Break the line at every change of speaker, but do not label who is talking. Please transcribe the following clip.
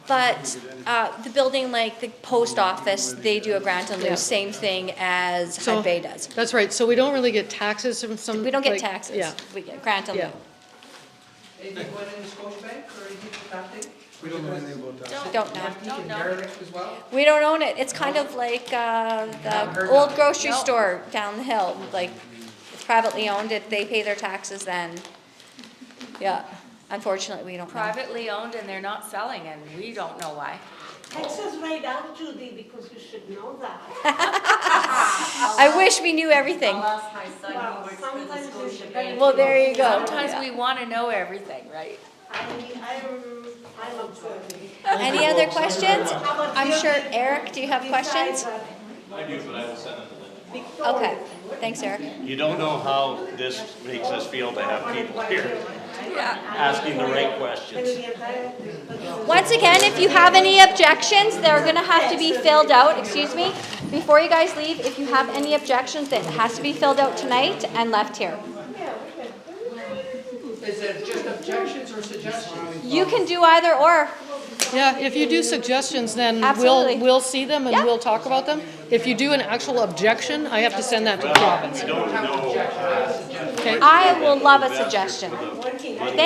But uh, the building, like the post office, they do a grant and
Yeah.
lieu, same thing as
So-
Hud Bay does.
That's right, so we don't really get taxes from some.
We don't get
like-
taxes,
Yeah,
we get grant and lieu.
yeah.
Anything going into Scotiabank or anything for that thing?
We don't know anything about that.
Don't know.
Oh,
Antique and derelict as well?
We don't own it, it's kind of like uh, the old grocery store down the hill, like it's privately owned, If they pay their taxes then. Yeah, unfortunately, we don't know.
privately owned and they're not selling and we don't know why.
Text us right out, Judy, because you should know that.
I wish we knew everything.
Lost my son
Well,
who works for the
sometimes it's
Scotia
better.
Well, there you go.
Sometimes
Yeah.
we want to know everything, right?
I, I'm, I'm observing.
Any other questions?
How about
I'm
you?
sure, Eric, do you have questions?
Besides that,
I do, but I will send them the link.
Victoria,
Okay, thanks, Eric.
You don't know how this makes us feel to have people here asking the right questions.
the entire-
Once again, if you have any objections, they're gonna have to be filled out, excuse me. Before you guys leave, if you have any objections, that has to be filled out tonight and left here.
Is it just objections or suggestions?
You can do either or.
Yeah, if you do suggestions, then
Absolutely.
we'll, we'll see them
Yeah.
and we'll talk about them. If you do an actual objection, I have to send
uh,
that to the province.
Don't know.
Okay.
I will love a suggestion.